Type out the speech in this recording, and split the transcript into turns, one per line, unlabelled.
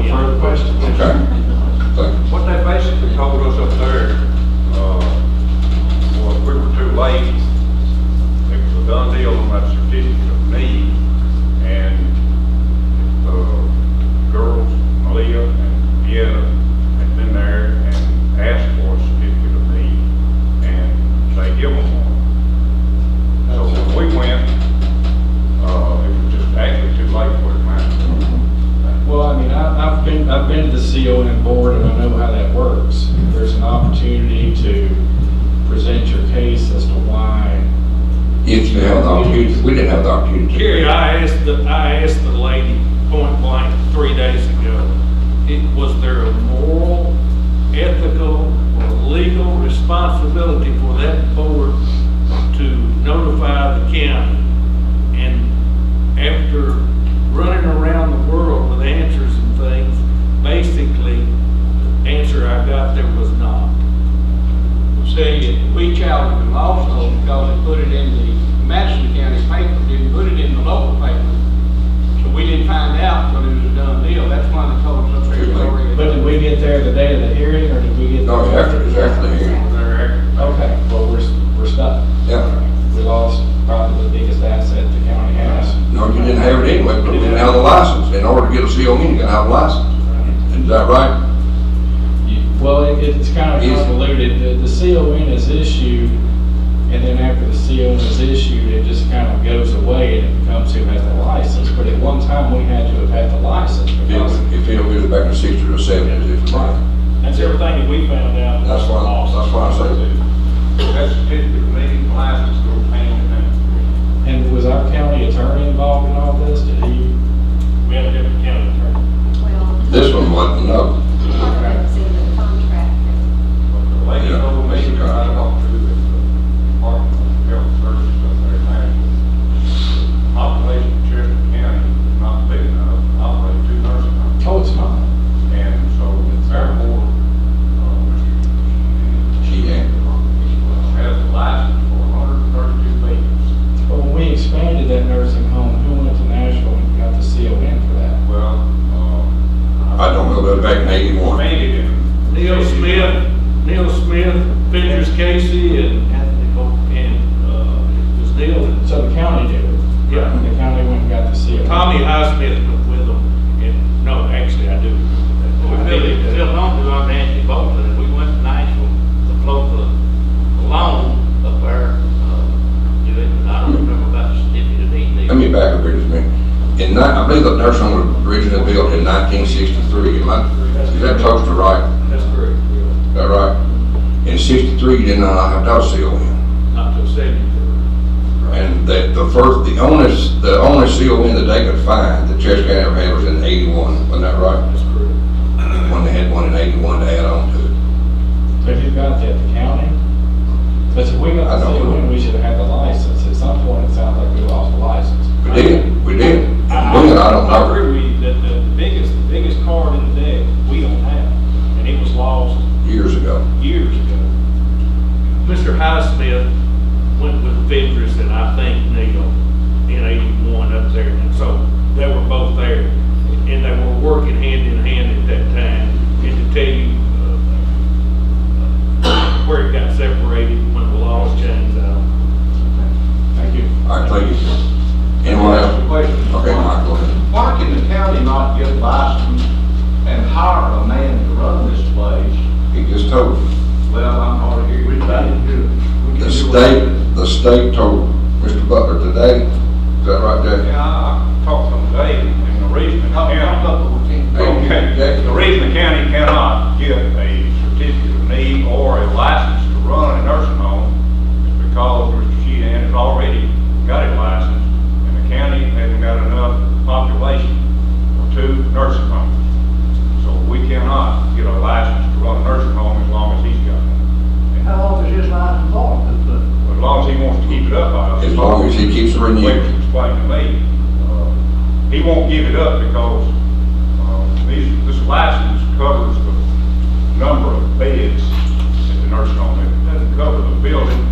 uh, uh, uh,
Mm-hmm.
I,
If you have the opportunity, we didn't have the opportunity.
Gary, I asked the, I asked the lady point blank three days ago, it, was there a moral, ethical, or legal responsibility for that board to notify the county? And after running around the world with answers and things, basically, the answer I got there was not.
See, we challenged them also because they put it in the Madison County paper, didn't put it in the local paper. So we didn't find out till it was a done deal. That's why they told us up there. it's already-
But did we get there the day of the hearing, or did we get?
No, it's after, it's after the hearing.
They're-
Okay, well, we're, we're stuck.
Yeah.
We lost probably the biggest asset the county has.
No, you didn't have it anyway, but we didn't have the license. In order to get a CO, you gotta have a license. Is that right?
You- Well, it- it's kind of
Yes.
convoluted. The, the CON is issued, and then after the CON is issued, it just kind of goes away and it becomes who has the license. But at one time, we had to have had the license
If
because,
it, if it was back in sixty or seventy, if it's right.
That's everything that we found out.
That's why, that's why I say,
That's the picture of meeting license or paying them.
and was our county attorney involved in all this? Did he?
We have a different county attorney.
Well,
this one wasn't, no.
it's in the contract.
The lady
Yeah,
told me
that's the
that I
contract.
walked through the Department of Health Services up there in Madison. The Population of uh, Cherokee County is not big enough, to operate two nursing homes.
Oh, it's not.
And so therefore, uh, um,
She ain't.
has a license for hundred and thirty-two patients.
But when we expanded that nursing home, who went to Nashville and got the CON for that?
Well, um.
I don't know, but back in eighty-one.
Made it in.
Neil Smith, Neil Smith, Ventures Casey, and, and, uh, it was Neil and,
So the county did it.
yeah,
The county went and got the CON.
Tommy Highsmith was with them, and, no, actually, I do.
We really, we
remember that.
long ago, I'm Nancy Bolton, and we went to Nashville to float the loan up there. uh, do it, and I don't remember about the certificate either.
Let me back up here just a minute. In ni, I believe the nursing home was originally built in nineteen sixty-three. Am I, is that close to right?
That's correct, yeah.
Is that right? In sixty-three, you did not have to CO in.
not till seventy-four.
And the, the first, the only, the only CON that they could find that Cherokee County ever had was in eighty-one, wasn't that right?
That's correct.
When they had one in eighty-one to add on to it.
But who got that, the county? But if we
I
got the
don't know.
CON, we should have had the license. At some point, it sounds like we lost the license.
We did, we did. Doing it, I don't
I
know.
agree with you, that the biggest, the biggest card in the deck, we don't have, and it was lost
years ago.
years ago. Mr. Highsmith went with Ventris and I think Neil in eighty-one up there, and so they were both there. And they were working hand in hand at that time, and to tell you uh, where it got separated when the laws changed out.
Thank you.
All right, thank you. Anyone else? Okay, Mike, go ahead.
Why can the county not get licensed and hire a man to run this place?
He just told, you.
Well, I'm hard to hear. We can do it.
the state, the state told Mr. Butler today, is that right, Jack?
Yeah, I I talked to him today, and the reason the county.
Okay.
The reason the county cannot give a certificate of need or a license to run a nursing home is because Mr. Sheehan has already got a license, and the county hasn't got enough population for two nursing homes. So we cannot get a license to run a nursing home as long as he's got one. How long is his license for? As long as he wants to keep it up, I.
As long as he keeps
Wicks
renewing.
explained to me, uh, he won't give it up because uh, these- this license covers the number of beds at the nursing home. It doesn't cover the building